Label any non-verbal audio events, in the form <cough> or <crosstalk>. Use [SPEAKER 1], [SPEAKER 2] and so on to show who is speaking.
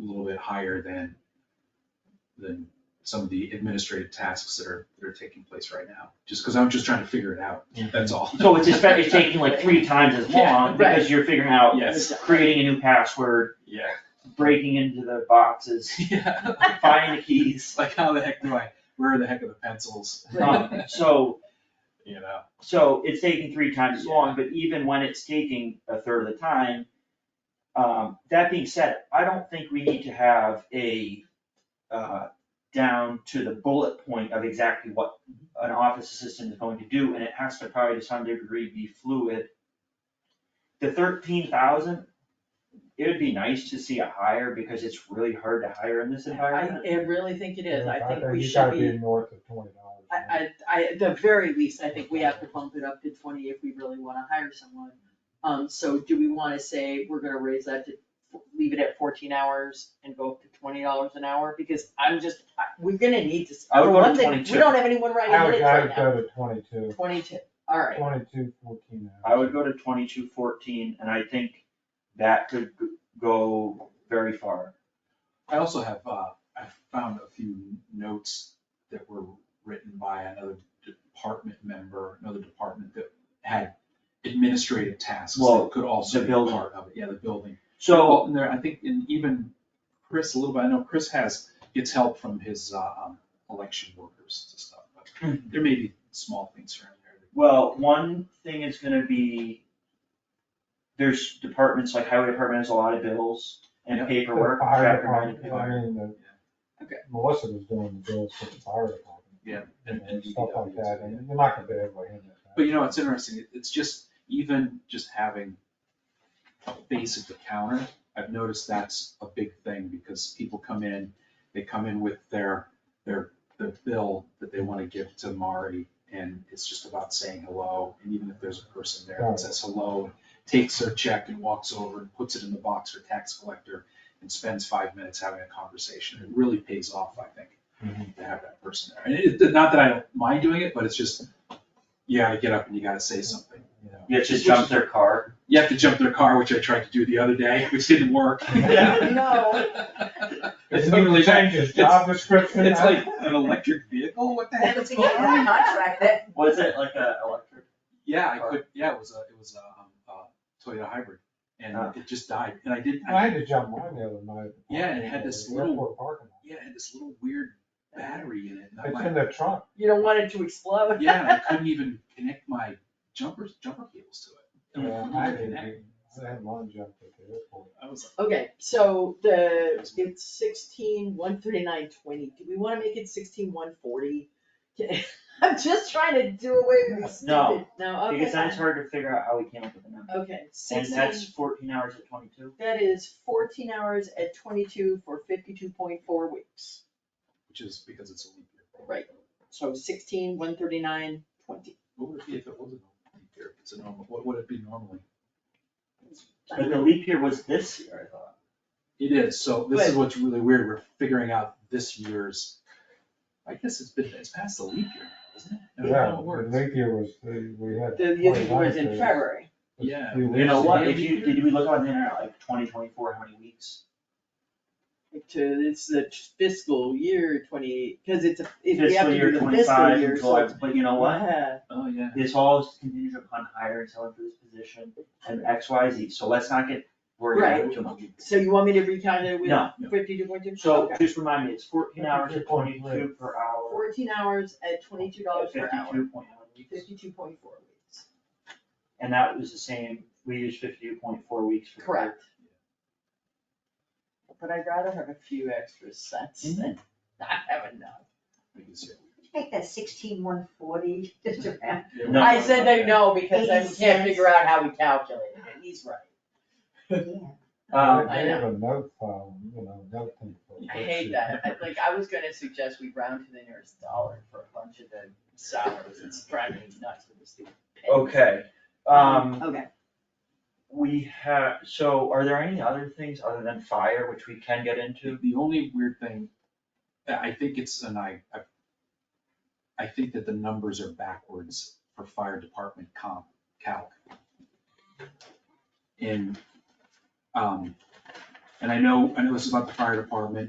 [SPEAKER 1] a little bit higher than, than some of the administrative tasks that are, that are taking place right now, just because I'm just trying to figure it out, that's all.
[SPEAKER 2] So it's
[SPEAKER 1] <laughs>
[SPEAKER 2] just, it's taking like three times as long
[SPEAKER 1] Yeah, right.
[SPEAKER 2] because you're figuring out,
[SPEAKER 1] Yes.
[SPEAKER 2] creating a new password,
[SPEAKER 1] Yeah,
[SPEAKER 2] breaking into the boxes, <laughs>
[SPEAKER 1] yeah, <laughs>
[SPEAKER 2] finding the keys.
[SPEAKER 1] it's like, how the heck do I, where are the heck are the pencils? <laughs>
[SPEAKER 2] Um, So,
[SPEAKER 1] You know,
[SPEAKER 2] so it's taking three times as long, but even when it's taking a third of the time, um, that being said, I don't think we need to have a, uh, down to the bullet point of exactly what an office assistant is going to do, and it has to probably to some degree be fluid. The thirteen thousand, it would be nice to see a hire, because it's really hard to hire in this
[SPEAKER 3] I,
[SPEAKER 2] environment.
[SPEAKER 3] I really think it is, I think we
[SPEAKER 4] you
[SPEAKER 3] should
[SPEAKER 4] gotta
[SPEAKER 3] be,
[SPEAKER 4] north of twenty dollars.
[SPEAKER 3] I, I, I, at the very least, I think we have to bump it up to twenty if we really wanna hire someone. Um, so do we wanna say we're gonna raise that to, leave it at fourteen hours and go up to twenty dollars an hour? Because I'm just, I, we're gonna need to,
[SPEAKER 2] I would
[SPEAKER 3] for
[SPEAKER 2] go to
[SPEAKER 3] one thing, we
[SPEAKER 2] 22.
[SPEAKER 3] don't have anyone writing
[SPEAKER 4] I would,
[SPEAKER 3] minutes
[SPEAKER 4] I
[SPEAKER 3] right
[SPEAKER 4] would
[SPEAKER 3] now,
[SPEAKER 4] go to twenty-two,
[SPEAKER 3] twenty-two, alright.
[SPEAKER 4] twenty-two, fourteen hours.
[SPEAKER 2] I would go to twenty-two fourteen, and I think that could g- go very far.
[SPEAKER 1] I also have, uh, I found a few notes that were written by another department member, another department that had administrative tasks
[SPEAKER 2] Well,
[SPEAKER 1] that could also
[SPEAKER 2] the
[SPEAKER 1] be part of it.
[SPEAKER 2] building.
[SPEAKER 1] Yeah, the building.
[SPEAKER 2] So,
[SPEAKER 1] Well, and there, I think, and even Chris a little bit, I know Chris has, gets help from his, uh, um, election workers and stuff,
[SPEAKER 4] Hmm.
[SPEAKER 1] but there may be small things around there.
[SPEAKER 2] well, one thing is gonna be, there's departments, like highway department has a lot of bills
[SPEAKER 1] Yeah.
[SPEAKER 2] and
[SPEAKER 4] The
[SPEAKER 2] paperwork,
[SPEAKER 4] fire
[SPEAKER 2] chapter ninety
[SPEAKER 4] department, I
[SPEAKER 2] paperwork.
[SPEAKER 4] mean, the-
[SPEAKER 1] Okay.
[SPEAKER 4] Melissa was doing the bills for the fire department.
[SPEAKER 1] Yeah,
[SPEAKER 4] And
[SPEAKER 1] and- and
[SPEAKER 4] stuff like
[SPEAKER 1] DPW,
[SPEAKER 4] that, and you're not gonna be able to handle that.
[SPEAKER 1] But you know, it's interesting, It- it's just, even just having a face at the counter, I've noticed that's a big thing, because people come in, they come in with their, their, their bill that they wanna give to Mari, and it's just about saying hello, and even if there's a person there that says hello, takes their check and walks over and puts it in the box for tax collector, and spends five minutes having a conversation, it really pays off, I think
[SPEAKER 4] Mm-hmm,
[SPEAKER 1] to have that person there. And it, it- not that I don't mind doing it, but it's just, you gotta get up and you gotta say something, you know.
[SPEAKER 2] You have to jump their car.
[SPEAKER 1] You have to jump their car, which I tried to do the other day, <laughs> which didn't
[SPEAKER 4] <laughs>
[SPEAKER 1] work.
[SPEAKER 2] Yeah.
[SPEAKER 3] No. <laughs>
[SPEAKER 1] It's
[SPEAKER 4] Didn't
[SPEAKER 1] literally-
[SPEAKER 4] change his job description.
[SPEAKER 1] It's like an electric vehicle, what the heck
[SPEAKER 3] <laughs>
[SPEAKER 1] is going on?
[SPEAKER 2] Was it like a electric?
[SPEAKER 1] Yeah, I could, yeah, it was a, it was a, um, a Toyota hybrid, and
[SPEAKER 2] Ah.
[SPEAKER 1] it just died, and I didn't,
[SPEAKER 4] I had to jump mine the other night.
[SPEAKER 1] Yeah, and it had this
[SPEAKER 4] Airport
[SPEAKER 1] little-
[SPEAKER 4] parking lot.
[SPEAKER 1] yeah, it had this little weird battery in it, and I'm
[SPEAKER 4] It's in
[SPEAKER 1] like,
[SPEAKER 4] the trunk,
[SPEAKER 3] You don't want it to
[SPEAKER 1] <laughs>
[SPEAKER 3] explode.
[SPEAKER 1] yeah, and I couldn't even connect my jumpers, jumper cables to it. And I
[SPEAKER 4] and
[SPEAKER 1] couldn't
[SPEAKER 4] I
[SPEAKER 1] even
[SPEAKER 4] had,
[SPEAKER 1] connect.
[SPEAKER 4] to- I had mine jumped at the airport.
[SPEAKER 1] I was like,
[SPEAKER 3] Okay, so the, it's sixteen, one thirty-nine, twenty, do we wanna make it sixteen, one forty? <laughs> I'm just trying to do away with these
[SPEAKER 2] No,
[SPEAKER 3] stupid, no, okay.
[SPEAKER 2] Because then it's hard to figure out how we came up with the number.
[SPEAKER 3] Okay,
[SPEAKER 2] And
[SPEAKER 3] sixteen,
[SPEAKER 2] that's fourteen hours at twenty-two.
[SPEAKER 3] that is fourteen hours at twenty-two for fifty-two point four weeks,
[SPEAKER 1] which is because it's a leap year.
[SPEAKER 3] Right. so sixteen, one thirty-nine, twenty.
[SPEAKER 1] What would it be if it wasn't a leap year, if it's a normal, what would it be normally?
[SPEAKER 2] But the leap year was this year, I thought.
[SPEAKER 1] It is, so this is
[SPEAKER 3] But-
[SPEAKER 1] what's really weird, we're figuring out this year's, I guess it's been, it's past the leap year, isn't it? I don't know how
[SPEAKER 4] Yeah,
[SPEAKER 1] it
[SPEAKER 4] the
[SPEAKER 1] works.
[SPEAKER 4] leap year was, the- we had.
[SPEAKER 3] The, the other
[SPEAKER 4] 29
[SPEAKER 3] was in
[SPEAKER 4] days.
[SPEAKER 3] February,
[SPEAKER 1] Yeah.
[SPEAKER 4] We
[SPEAKER 2] You know
[SPEAKER 4] wasted-
[SPEAKER 2] what, if you, did we look on the internet, like twenty twenty-four, how many weeks?
[SPEAKER 3] to, it's the fiscal year twenty, cause it's a, if we have
[SPEAKER 2] Fiscal
[SPEAKER 3] to do
[SPEAKER 2] year
[SPEAKER 3] the fiscal year, so.
[SPEAKER 2] twenty-five until, it's- but you know what?
[SPEAKER 3] Yeah.
[SPEAKER 1] Oh, yeah.
[SPEAKER 2] This all is contingent upon hiring someone for this position and X, Y, Z, so let's not get worried about it too much.
[SPEAKER 3] So you want me to recount it with
[SPEAKER 2] No.
[SPEAKER 3] fifty-two point two?
[SPEAKER 2] So just remind me, it's fourteen hours or
[SPEAKER 4] Fifty-two point
[SPEAKER 2] twenty-two per hour,
[SPEAKER 3] Fourteen hours at twenty-two dollars per hour,
[SPEAKER 2] fifty-two point one weeks,
[SPEAKER 3] fifty-two point four weeks.
[SPEAKER 2] and that was the same, we used fifty-two point four weeks for.
[SPEAKER 3] Correct. But I'd rather have a few extra sets
[SPEAKER 2] Mm-hmm.
[SPEAKER 3] than not have enough.
[SPEAKER 1] I can see it.
[SPEAKER 5] Make that sixteen one forty, <laughs> just around.
[SPEAKER 1] Yeah,
[SPEAKER 2] No.
[SPEAKER 1] well,
[SPEAKER 3] I said they no because I
[SPEAKER 5] Eighty
[SPEAKER 3] can't
[SPEAKER 5] cents.
[SPEAKER 3] figure out how we calculated it, he's right.
[SPEAKER 2] Um,
[SPEAKER 4] I have a note file, you know, note thing. for
[SPEAKER 3] I hate that, I like, I was gonna suggest we round to the nearest dollar for a bunch of the salaries, it's driving me nuts with this stupid. pennies.
[SPEAKER 2] okay, um,
[SPEAKER 3] Okay,
[SPEAKER 2] we have, so are there any other things other than fire, which we can get into?
[SPEAKER 1] The the only weird thing, I I think it's, and I, I, I think that the numbers are backwards for fire department comp calc. In, um, And I know, I know this is about the fire department,